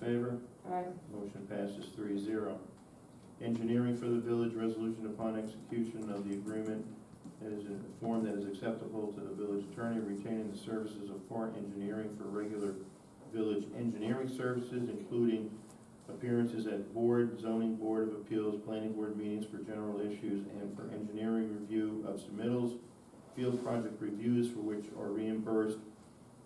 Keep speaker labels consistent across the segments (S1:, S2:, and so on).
S1: favor?
S2: Aye.
S1: Motion passes three zero. Engineering for the village, resolution upon execution of the agreement that is in a form that is acceptable to the village attorney retaining the services of Fort Engineering for regular village engineering services, including appearances at board, zoning board of appeals, planning board meetings for general issues, and for engineering review of submittals, field project reviews for which are reimbursed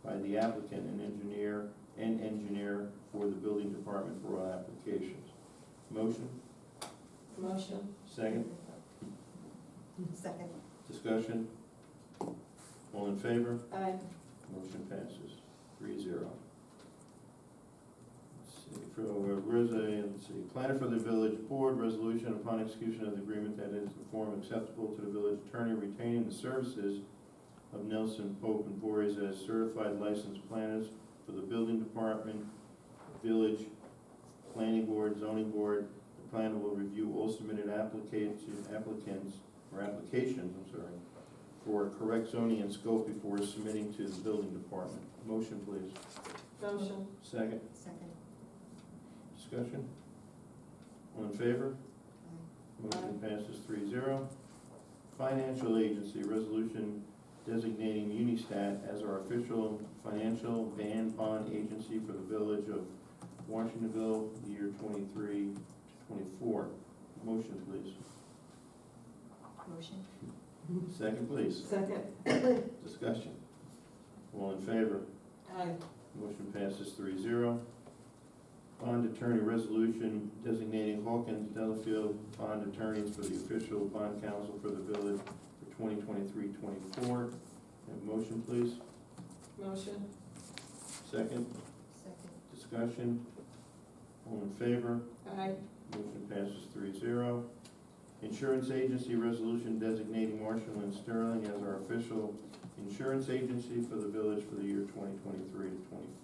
S1: by the applicant and engineer and engineer for the building department for all applications. Motion,
S2: Motion.
S1: second,
S3: Second.
S1: discussion? All in favor?
S2: Aye.
S1: Motion passes three zero. Let's see, for, where's a, let's see, planner for the village board, resolution upon execution of the agreement that is the form acceptable to the village attorney retaining the services of Nelson Pope and Boris as certified licensed planners for the building department, village, planning board, zoning board. The planner will review all submitted application, applicants, or applications, I'm sorry, for correct zoning and scope before submitting to the building department. Motion, please.
S2: Motion.
S1: Second,
S3: Second.
S1: discussion? All in favor? Motion passes three zero. Financial agency resolution designating Unistat as our official financial van bond agency for the village of Washingtonville, year 23-24. Motion, please.
S3: Motion.
S1: Second, please.
S2: Second.
S1: Discussion? All in favor?
S2: Aye.
S1: Motion passes three zero. Bond attorney resolution designating Hawkins Delafield bond attorneys for the official bond counsel for the village for 2023-24. Have a motion, please.
S2: Motion.
S1: Second,
S3: Second.
S1: discussion. All in favor?
S2: Aye.
S1: Motion passes three zero. Insurance agency resolution designating Marshall and Sterling as our official insurance agency for the village for the year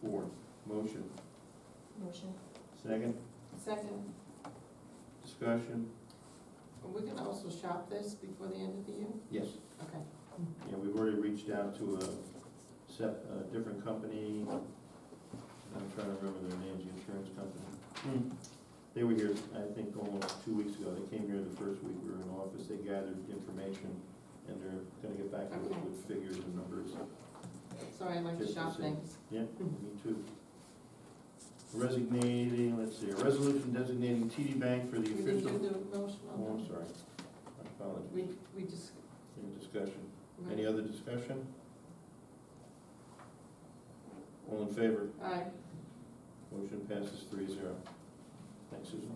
S1: 2023-24. Motion.
S3: Motion.
S1: Second,
S2: Second.
S1: discussion.
S2: We can also shop this before the end of the year?
S1: Yes,
S2: Okay.
S1: yeah, we've already reached out to a sep, a different company, I'm trying to remember their names, the insurance company. They were here, I think, almost two weeks ago, they came here the first week we were in office, they gathered information, and they're gonna get back to us with figures and numbers.
S2: Sorry, I like to shop things.
S1: Me too. Resignating, let's see, a resolution designating TD Bank for the
S2: We didn't do
S1: official,
S2: the motion
S1: oh,
S2: on
S1: I'm sorry, I
S2: that.
S1: apologize,
S2: We, we just.
S1: any discussion? Any other discussion? All in favor?
S2: Aye.
S1: Motion passes three zero. Thanks, Susan.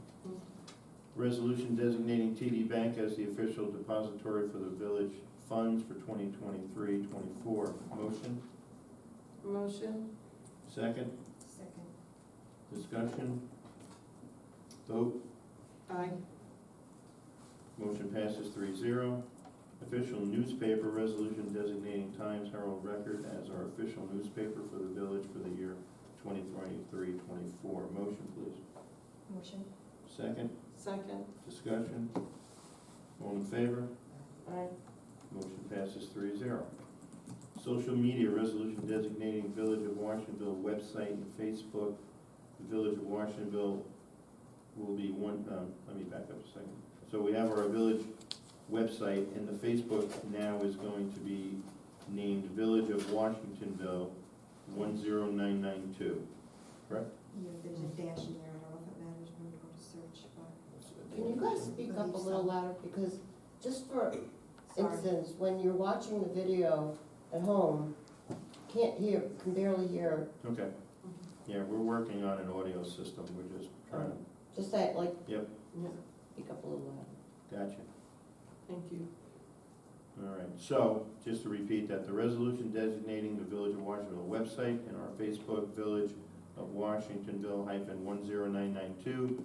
S1: Resolution designating TD Bank as the official depository for the village funds for 2023-24. Motion,
S2: Motion.
S1: second,
S3: Second.
S1: discussion. Vote,
S2: Aye.
S1: motion passes three zero. Official newspaper resolution designating Times Herald Record as our official newspaper for the village for the year 2023-24. Motion, please.
S3: Motion.
S1: Second,
S2: Second.
S1: discussion. All in favor?
S2: Aye.
S1: Motion passes three zero. Social media resolution designating Village of Washingtonville website and Facebook. The Village of Washingtonville will be one, um, let me back up a second. So we have our village website and the Facebook now is going to be named Village of Washingtonville one zero nine nine two.
S3: Yeah, there's a dash in there, I don't know if it matters when you go to search, but.
S4: Can you guys speak up a little louder, because just for
S3: Sorry.
S4: instance, when you're watching the video at home, can't hear, can barely hear,
S1: Okay, yeah, we're working on an audio system, we're just trying to,
S4: just that, like,
S2: Yeah,
S4: speak up a little louder.
S1: gotcha.
S2: thank you.
S1: All right, so, just to repeat that, the resolution designating the Village of Washingtonville website and our Facebook Village of Washingtonville hyphen one zero nine nine two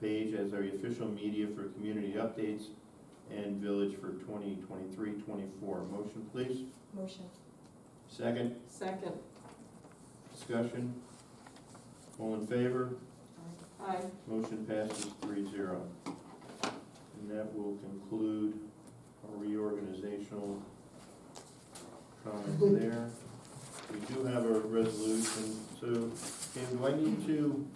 S1: page as our official media for community updates and village for 2023-24. Motion, please.
S3: Motion.
S1: Second,
S2: Second.
S1: discussion. All in favor?
S3: Aye.
S2: Aye.
S1: Motion passes three zero. And that will conclude our reorganizational comments there. We do have a resolution, so, Kim, do I need to